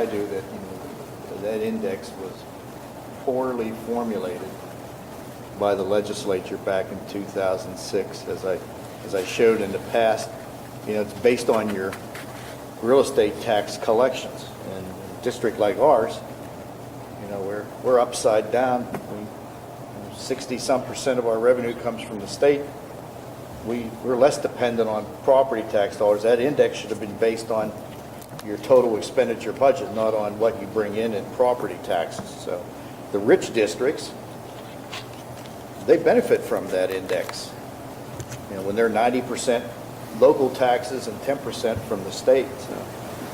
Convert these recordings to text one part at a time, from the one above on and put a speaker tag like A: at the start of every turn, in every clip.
A: I do that, you know, that index was poorly formulated by the legislature back in 2006. As I, as I showed in the past, you know, it's based on your real estate tax collections. And a district like ours, you know, we're, we're upside down. We 60-some percent of our revenue comes from the state. We, we're less dependent on property tax dollars. That index should have been based on your total expenditure budget, not on what you bring in in property taxes. So the rich districts, they benefit from that index. You know, when they're 90% local taxes and 10% from the state, so.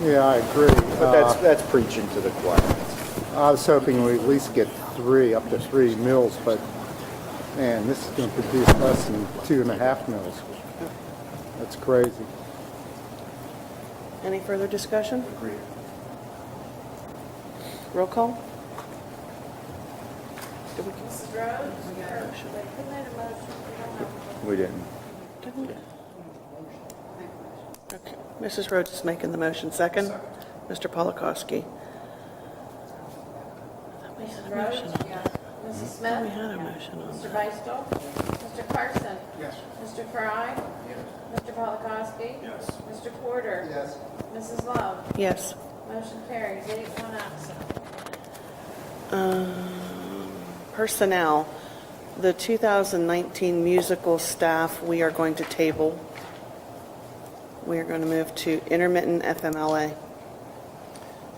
B: Yeah, I agree.
A: But that's,
B: Uh,
A: that's preaching to the choir.
B: I was hoping we at least get three, up to three mills, but man, this is going to produce less than two and a half mills. That's crazy.
C: Any further discussion?
A: Agreed.
C: Roll call?
D: Mrs. Rhodes? They couldn't have a motion. We don't have a
A: We didn't.
C: Didn't it? Okay. Mrs. Rhodes is making the motion second. Mr. Polakowski.
D: Mrs. Rhodes? Yes. Mrs. Smith?
C: We had a motion on
D: Mr.
C: that.
D: Beistel? Mr. Carson? Yes. Mr. Fry? Yes. Mr. Polakowski? Yes. Mr. Porter? Yes. Mrs. Love?
C: Yes.
D: Motion carries, eight, one absent.
C: Um, Personnel, the 2019 musical staff, we are going to table. We are going to move to intermittent FMLA.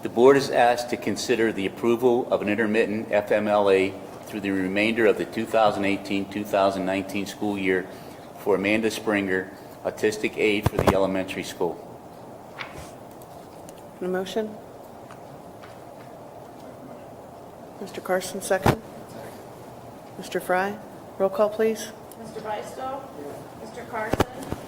E: The board is asked to consider the approval of an intermittent FMLA through the remainder of the 2018-2019 school year for Amanda Springer, autistic aide for the elementary school.
C: A motion? Mr. Carson, second. Mr. Fry, roll call, please.
D: Mr. Beistel? Mr. Carson?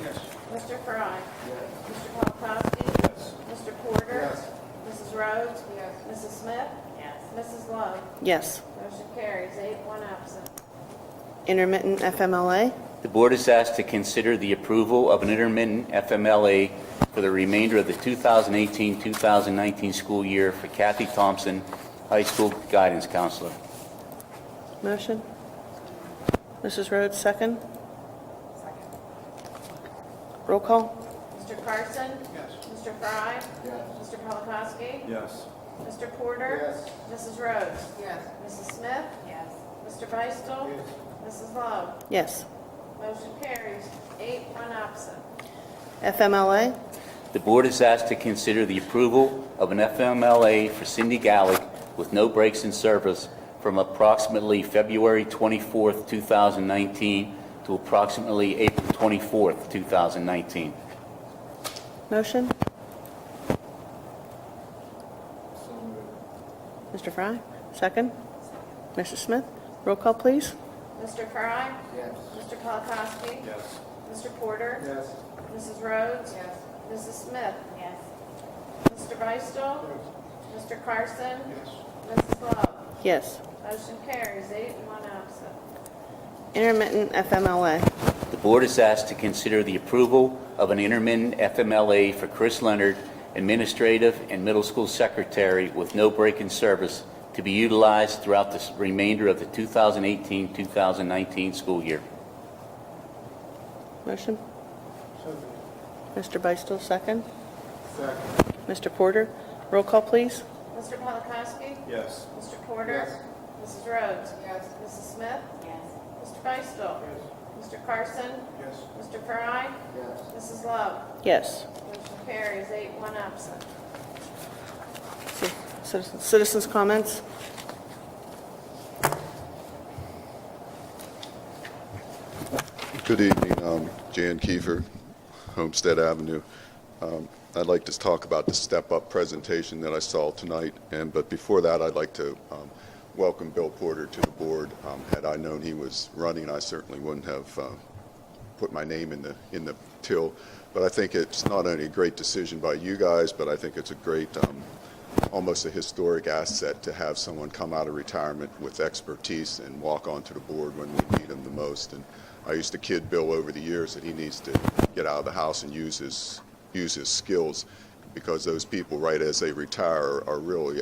D: Yes. Mr. Fry? Yes. Mr. Polakowski? Yes. Mr. Porter? Yes. Mrs. Rhodes? Yes. Mrs. Smith? Yes. Mrs. Love?
C: Yes.
D: Motion carries, eight, one absent.
C: Intermittent FMLA,
E: The board is asked to consider the approval of an intermittent FMLA for the remainder of the 2018-2019 school year for Kathy Thompson, high school guidance counselor.
C: motion. Mrs. Rhodes, second. Roll call?
D: Mr. Carson? Yes. Mr. Fry? Yes. Mr. Polakowski?
F: Yes.
D: Mr. Porter? Yes. Mrs. Rhodes? Yes. Mrs. Smith? Yes. Mr. Beistel? Yes. Mrs. Love?
C: Yes.
D: Motion carries, eight, one absent.
C: FMLA,
E: The board is asked to consider the approval of an FMLA for Cindy Gallick with no breaks in service from approximately February 24th, 2019 to approximately April 24th, 2019.
C: motion. Mr. Fry, second. Mrs. Smith, roll call, please.
D: Mr. Fry? Yes. Mr. Polakowski?
F: Yes.
D: Mr. Porter? Yes. Mrs. Rhodes? Yes. Mrs. Smith? Yes. Mr. Beistel? Yes. Mr. Carson? Yes. Mrs. Love?
C: Yes.
D: Motion carries, eight, one absent.
C: Intermittent FMLA,
E: The board is asked to consider the approval of an intermittent FMLA for Chris Leonard, administrative and middle school secretary with no break in service to be utilized throughout the s- remainder of the 2018-2019 school year.
C: motion. Mr. Beistel, second.
B: Second.
C: Mr. Porter, roll call, please.
D: Mr. Polakowski?
F: Yes.
D: Mr. Porter? Mrs. Rhodes? Yes. Mrs. Smith? Yes. Mr. Beistel? Yes. Mr. Carson?
F: Yes.
D: Mr. Fry? Yes. Mrs. Love?
C: Yes.
D: Motion carries, eight, one absent.
C: Ci- citizens- Citizens' comments?
G: Good evening, um, Jan Kiefer, Homestead Avenue. Um, I'd like to talk about the step-up presentation that I saw tonight, and, but before that, I'd like to um, welcome Bill Porter to the board. Um, Had I known he was running, I certainly wouldn't have uh, put my name in the, in the till. But I think it's not only a great decision by you guys, but I think it's a great um, almost a historic asset to have someone come out of retirement with expertise and walk onto the board when we need him the most. And I used to kid Bill over the years that he needs to get out of the house and use his, use his skills. because those people, right as they retire, are really